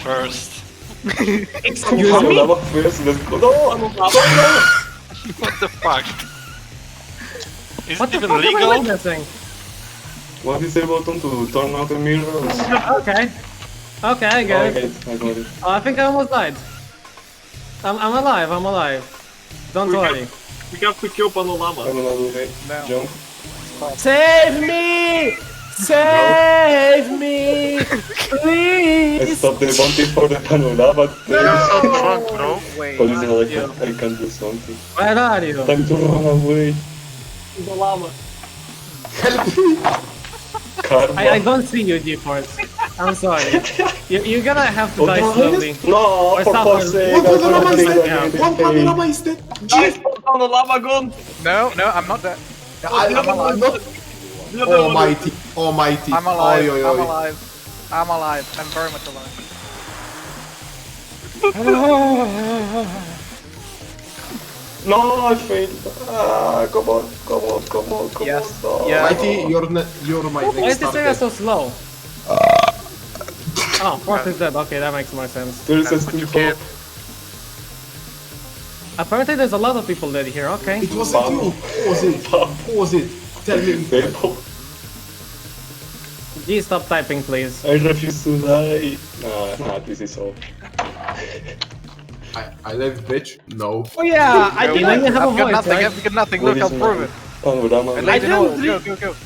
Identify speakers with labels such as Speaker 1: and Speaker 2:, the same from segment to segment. Speaker 1: first.
Speaker 2: It's
Speaker 3: Yüzüme bakmıyorsunuz. No, no, no.
Speaker 1: What the fuck? Is
Speaker 4: What
Speaker 1: it
Speaker 4: the
Speaker 1: even
Speaker 4: fuck am I
Speaker 1: legal?
Speaker 4: witnessing?
Speaker 3: What is the button to turn out the mirrors?
Speaker 4: Okay. Okay, I
Speaker 3: Oh,
Speaker 4: get
Speaker 3: I
Speaker 4: it.
Speaker 3: got it. I got it.
Speaker 4: Oh, I think I almost died. I'm, I'm alive, I'm alive. Don't
Speaker 2: We
Speaker 4: worry.
Speaker 2: We have to kill Panorama.
Speaker 3: I'm gonna do the
Speaker 5: No.
Speaker 3: jump.
Speaker 4: Save me! Save me!
Speaker 3: I
Speaker 4: Please!
Speaker 3: stopped the bounty for the panorama.
Speaker 5: You're
Speaker 3: No.
Speaker 5: so drunk, bro.
Speaker 3: I
Speaker 5: Wait.
Speaker 3: like, I can do something.
Speaker 4: Where are you?
Speaker 3: Time to run away.
Speaker 2: The llama.
Speaker 3: Karma.
Speaker 4: I, I don't see you, Default. I'm sorry. You, you're gonna have to die slowly.
Speaker 3: No,
Speaker 4: Or
Speaker 3: for
Speaker 4: someone-
Speaker 3: fuck's sake.
Speaker 6: One
Speaker 3: I don't
Speaker 6: panorama is
Speaker 3: think I made
Speaker 6: dead. One
Speaker 3: it. Hey,
Speaker 6: panorama is dead.
Speaker 2: Guys,
Speaker 6: Jeez.
Speaker 2: Panorama gone!
Speaker 5: No, no, I'm not dead. No,
Speaker 6: I,
Speaker 5: I'm,
Speaker 6: am
Speaker 5: alive.
Speaker 6: not Oh,
Speaker 2: The other one.
Speaker 6: almighty. Almighty.
Speaker 5: I'm alive.
Speaker 6: Oh, Oi, oi,
Speaker 5: I'm
Speaker 6: oi.
Speaker 5: alive. I'm alive. I'm very much alive.
Speaker 3: No, I failed. Ah, come on, come on, come on, come
Speaker 5: Yes.
Speaker 3: on. No.
Speaker 5: Yeah.
Speaker 6: Mighty, you're, ne- you're my
Speaker 4: Why is
Speaker 6: next
Speaker 4: this area
Speaker 6: target.
Speaker 4: so slow? Oh, Fort is dead. Okay, that makes more sense.
Speaker 3: There's a
Speaker 5: That's what you
Speaker 3: still
Speaker 5: get.
Speaker 3: hope.
Speaker 4: Apparently, there's a lot of people dead here. Okay.
Speaker 6: It wasn't
Speaker 3: Mom.
Speaker 6: you. Pause it. Pause it. Tell me.
Speaker 3: They hope.
Speaker 4: G, stop typing, please.
Speaker 3: I refuse to die. Nah, nah, this is all.
Speaker 6: I, I left, bitch. No.
Speaker 5: Oh yeah, I
Speaker 4: No,
Speaker 5: did
Speaker 4: we
Speaker 5: it.
Speaker 4: have a
Speaker 5: I've got
Speaker 4: voice,
Speaker 5: nothing.
Speaker 4: right?
Speaker 5: I've got nothing.
Speaker 3: What is
Speaker 5: Look, I'll
Speaker 3: my
Speaker 5: prove it.
Speaker 3: Panorama.
Speaker 5: And lady
Speaker 7: I don't
Speaker 5: Noel, Go,
Speaker 7: drink-
Speaker 5: go, go.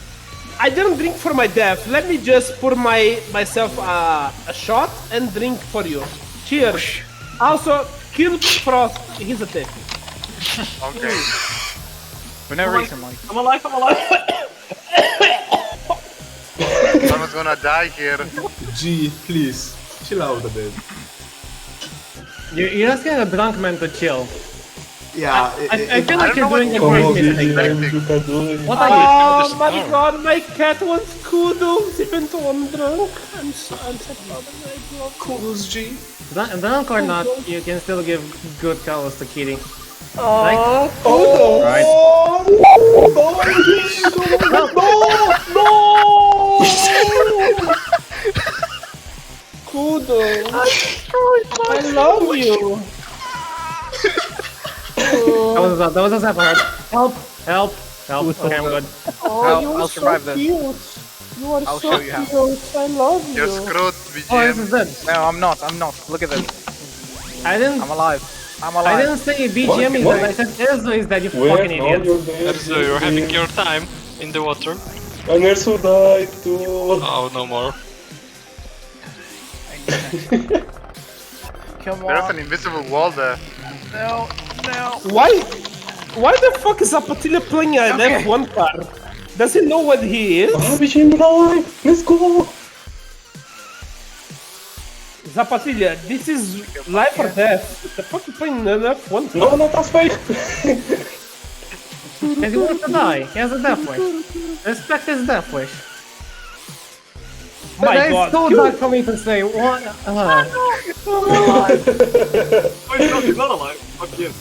Speaker 7: I didn't drink for my death. Let me just pour my myself uh, a shot and drink for you. Cheers. Also, kill Frost. He's a thief.
Speaker 5: Okay. For no reason, Mike.
Speaker 2: I'm alive, I'm alive!
Speaker 5: Someone's gonna die here.
Speaker 6: G, please. Chill out a bit.
Speaker 4: You, you're asking a drunk man to chill.
Speaker 6: Yeah.
Speaker 4: I, I feel
Speaker 5: I
Speaker 4: like
Speaker 5: don't
Speaker 4: you're
Speaker 5: know
Speaker 4: doing a
Speaker 3: Come on,
Speaker 4: great
Speaker 3: Gigi,
Speaker 4: mistake.
Speaker 3: you can do it.
Speaker 4: What are
Speaker 7: Oh
Speaker 1: just
Speaker 7: my
Speaker 1: now.
Speaker 7: god, my cat wants kudos even though I'm drunk. I'm so I'm sad about it. I love kudos.
Speaker 6: G.
Speaker 4: you? Drunk- Drunk or not, you can still give good colors to Kitty.
Speaker 7: Aww,
Speaker 6: Oh,
Speaker 4: Right?
Speaker 7: kudos. I love you. Oh.
Speaker 4: That was that was a separate. Help! Help! Help! Okay, I'm good.
Speaker 7: Oh,
Speaker 5: I'll-
Speaker 7: you
Speaker 5: I'll
Speaker 7: are
Speaker 5: survive
Speaker 7: so
Speaker 5: that.
Speaker 7: cute. You are
Speaker 5: I'll show
Speaker 7: so
Speaker 5: you how.
Speaker 7: cute. I love you.
Speaker 5: You're screwed,
Speaker 4: Oh, this is
Speaker 5: BGM.
Speaker 4: dead.
Speaker 5: No, I'm not. I'm not. Look at this.
Speaker 4: I didn't.
Speaker 5: I'm alive. I'm
Speaker 4: I
Speaker 5: alive.
Speaker 4: didn't say BGM is
Speaker 3: What?
Speaker 4: dead. I said Erzo is dead. You
Speaker 3: Where?
Speaker 4: fucking
Speaker 3: No,
Speaker 4: idiot.
Speaker 3: you're there.
Speaker 1: So you're having
Speaker 3: Gigi.
Speaker 1: your time in the water.
Speaker 3: And also died too.
Speaker 1: Oh, no more.
Speaker 5: Come
Speaker 8: There's
Speaker 5: on.
Speaker 8: an invisible wall there.
Speaker 5: No, no.
Speaker 7: Why? Why the fuck is Apatilla playing an F1 car? Does he know what he is?
Speaker 3: Ah, Gigi, we're alive. Let's go.
Speaker 7: Zapatilla, this is life or death. The fuck you playing an F1 car?
Speaker 3: No, not as fake.
Speaker 4: Because he wants to die. He has a death wish. Respect his death wish. But
Speaker 7: My
Speaker 4: that is
Speaker 7: god.
Speaker 4: so
Speaker 7: you-
Speaker 4: dark for me to say. What? Uh,
Speaker 2: Oh, he's not, he's not alive. Fuck you.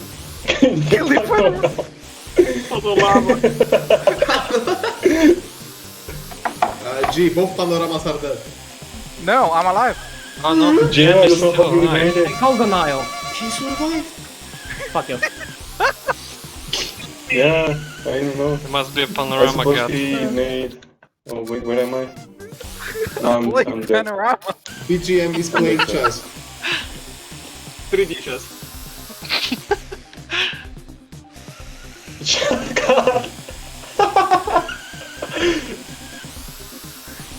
Speaker 2: Panorama.
Speaker 6: Uh, G, both panoramas are dead.
Speaker 5: No, I'm alive.
Speaker 1: Oh no,
Speaker 3: Gigi,
Speaker 1: Jim is
Speaker 3: you're
Speaker 1: still
Speaker 3: fucking
Speaker 1: alive.
Speaker 3: dead.
Speaker 4: call denial.
Speaker 6: He survived.
Speaker 4: Fuck you.
Speaker 3: Yeah, I don't know.
Speaker 1: There must be a
Speaker 3: I
Speaker 1: panorama
Speaker 3: suppose
Speaker 1: cat.
Speaker 3: he made. Oh wait, where am I? Um, I'm,
Speaker 5: Like
Speaker 3: I'm dead.
Speaker 5: panorama.
Speaker 6: BGM is playing chess.
Speaker 2: 3D chest.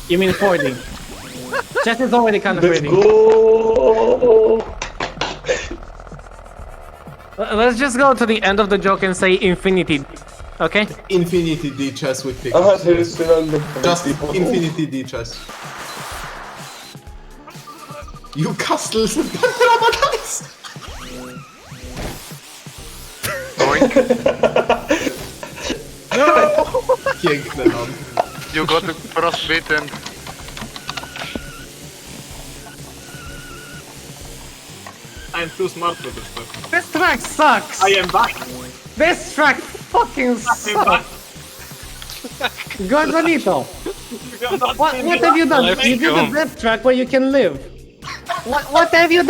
Speaker 4: You mean 4D? Chess is already kind of
Speaker 3: Let's
Speaker 4: 3D.
Speaker 3: go.
Speaker 4: L- Let's just go to the end of the joke and say infinity. Okay?
Speaker 6: Infinity D chess with pick.
Speaker 3: Ah, there is still on the
Speaker 6: Just
Speaker 3: people.
Speaker 6: infinity D chess. You castles and panorama dice.
Speaker 8: Boink.
Speaker 6: Piękne mam.
Speaker 8: you got frostbitten.
Speaker 2: I'm too smart for this stuff.
Speaker 4: This track sucks!
Speaker 2: I am back.
Speaker 4: This track fucking
Speaker 2: I'm back.
Speaker 4: sucks! Gonzalito,
Speaker 2: You cannot
Speaker 4: what,
Speaker 2: see
Speaker 4: what
Speaker 2: me.
Speaker 4: have you done?
Speaker 1: Let's
Speaker 4: You did
Speaker 1: go.
Speaker 4: a death track where you can live. What, what have you